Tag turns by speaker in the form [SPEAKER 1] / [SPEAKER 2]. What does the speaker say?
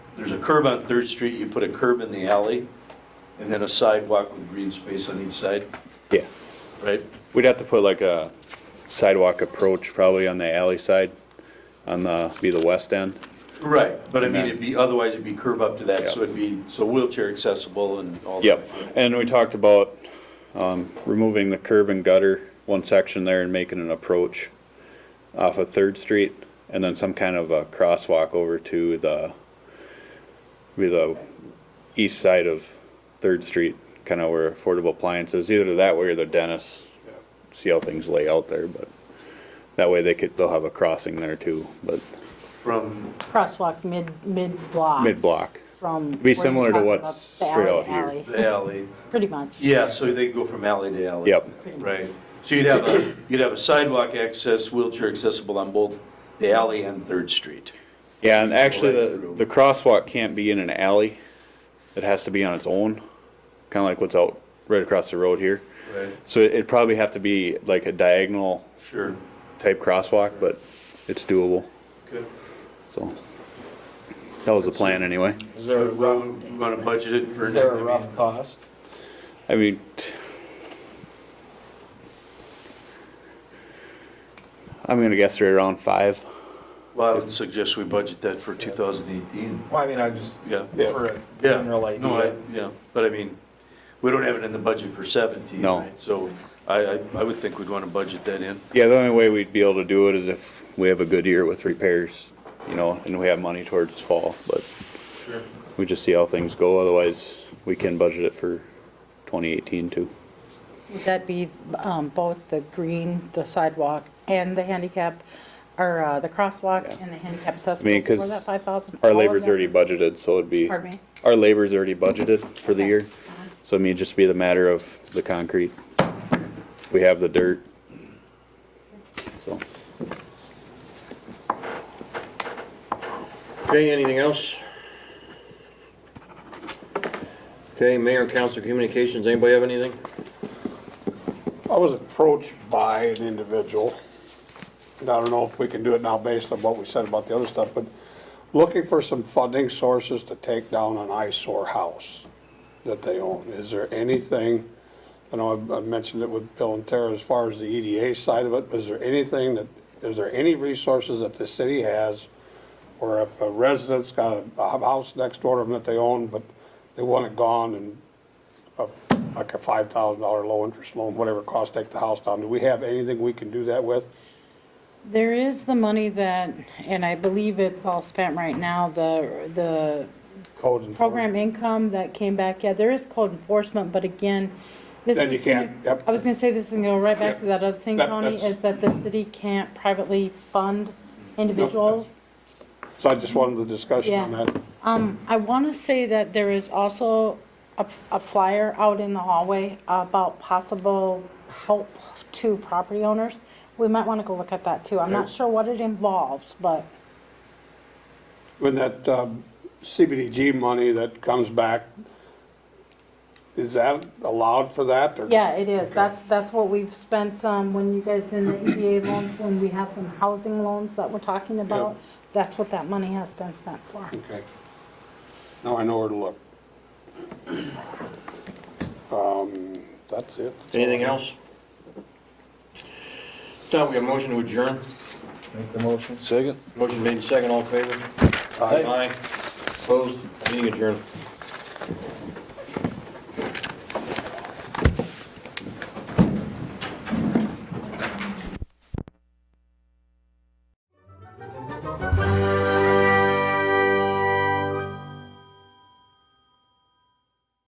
[SPEAKER 1] there's a curb on Third Street, you put a curb in the alley, and then a sidewalk with green space on each side,
[SPEAKER 2] Yeah,
[SPEAKER 1] right?
[SPEAKER 2] we'd have to put like a sidewalk approach probably on the alley side, on the, be the west end.
[SPEAKER 1] Right, but I mean,
[SPEAKER 2] Amen.
[SPEAKER 1] it'd be, otherwise it'd be curb up to that, so
[SPEAKER 2] Yeah.
[SPEAKER 1] it'd be, so wheelchair accessible and all that.
[SPEAKER 2] Yep, and we talked about, um, removing the curb and gutter, one section there and making an approach off of Third Street, and then some kind of a crosswalk over to the, be the east side of Third Street, kinda where affordable appliances, either that way or the dentist. See how things lay out there, but that way they could, they'll have a crossing there too, but
[SPEAKER 1] From,
[SPEAKER 3] crosswalk mid, mid-block.
[SPEAKER 2] mid-block.
[SPEAKER 3] From.
[SPEAKER 2] Be
[SPEAKER 3] where you
[SPEAKER 2] similar to
[SPEAKER 3] talk
[SPEAKER 2] what's
[SPEAKER 3] about the
[SPEAKER 2] straight
[SPEAKER 3] alley-
[SPEAKER 2] out here.
[SPEAKER 3] alley.
[SPEAKER 1] the alley.
[SPEAKER 3] Pretty much.
[SPEAKER 1] Yeah, so they go from alley to alley.
[SPEAKER 2] Yep,
[SPEAKER 3] pretty much.
[SPEAKER 1] Right. So you'd have, a you'd have a sidewalk access, wheelchair accessible on both the alley and Third Street.
[SPEAKER 2] yeah, and actually,
[SPEAKER 1] Right through.
[SPEAKER 2] the, the crosswalk can't be in an alley. It has to be on its own, kinda like what's out right across the road here.
[SPEAKER 1] Right.
[SPEAKER 2] So it- it'd probably have to be like a diagonal
[SPEAKER 1] Sure.
[SPEAKER 2] type crosswalk, but it's doable,
[SPEAKER 1] Good.
[SPEAKER 2] so. That was the plan anyway.
[SPEAKER 4] Is there a rough,
[SPEAKER 1] Want to budget it for?
[SPEAKER 4] is there a rough cost?
[SPEAKER 2] I mean, t- I'm gonna guess right around five.
[SPEAKER 1] Well, I would suggest we budget that for 2018.
[SPEAKER 4] Well, I mean, I just,
[SPEAKER 1] Yeah.
[SPEAKER 4] for a
[SPEAKER 1] Yeah.
[SPEAKER 4] general
[SPEAKER 1] No, I,
[SPEAKER 4] idea.
[SPEAKER 1] yeah, but I mean, we don't have it in the budget for 17.
[SPEAKER 2] No.
[SPEAKER 1] right? So I, I I would think we'd want to budget that in.
[SPEAKER 2] Yeah, the only way we'd be able to do it is if we have a good year with repairs, you know, and we have money towards fall, but
[SPEAKER 1] Sure.
[SPEAKER 2] we just see how things go, otherwise we can budget it for twenty eighteen too.
[SPEAKER 3] Would that be um, both the green, the sidewalk, and the handicap, or uh, the crosswalk
[SPEAKER 2] Yeah.
[SPEAKER 3] and the handicap accessible?
[SPEAKER 2] 'cause
[SPEAKER 3] Was that 5,000?
[SPEAKER 2] Our
[SPEAKER 3] All of
[SPEAKER 2] labor's
[SPEAKER 3] them?
[SPEAKER 2] already budgeted, so it'd be.
[SPEAKER 3] Oh, Pardon me?
[SPEAKER 2] Our labor's already budgeted for the
[SPEAKER 3] Okay.
[SPEAKER 2] year, so it may just be the matter of the concrete. We have the dirt. So,
[SPEAKER 5] Okay, anything else? Okay, Mayor and Council Communications, anybody have anything?
[SPEAKER 6] I was approached by an individual, and I don't know if we can do it now based on what we said about the other stuff, but looking for some funding sources to take down an eyesore house that they own. Is there anything, I know I've- I've mentioned it with Bill and Tara as far as the EDA side of it, but is there anything that, is there any resources that the city has or if a resident's got a- a house next door to them that they own, but they want it gone and a- like a five thousand dollar low interest loan, whatever it costs, take the house down. Do we have anything we can do that with?
[SPEAKER 3] There is the money that, and I believe it's all spent right now, the, the
[SPEAKER 6] Code enforcement?
[SPEAKER 3] program income that came back, yeah, there is code enforcement, but again, this
[SPEAKER 6] Then you
[SPEAKER 3] is gonna-
[SPEAKER 6] can't, yep.
[SPEAKER 3] I was gonna say this and go right back to
[SPEAKER 6] Yep.
[SPEAKER 3] that other thing,
[SPEAKER 6] That-
[SPEAKER 3] Tony,
[SPEAKER 6] that's-
[SPEAKER 3] is that the city can't privately fund individuals.
[SPEAKER 6] So I just wanted the discussion on
[SPEAKER 3] Yeah.
[SPEAKER 6] that.
[SPEAKER 3] Um, I wanna say that there is also a, a flyer out in the hallway about possible help to property owners. We might wanna go look at that too, I'm not
[SPEAKER 6] Okay.
[SPEAKER 3] sure what it involves, but,
[SPEAKER 6] When that um, CBDG money that comes back, is that allowed for that or?
[SPEAKER 3] yeah, it is, that's, that's what we've spent, um, when you guys in the EBA loans, when we have them housing loans that we're talking about, that's what that money has been spent for.
[SPEAKER 6] Okay. Now I know where to look. Um, that's it.
[SPEAKER 5] Anything else? Tom, we have a motion to adjourn.
[SPEAKER 4] Make the motion.
[SPEAKER 5] Motion made second, all in favor? Aye. Opposed? Meeting adjourned.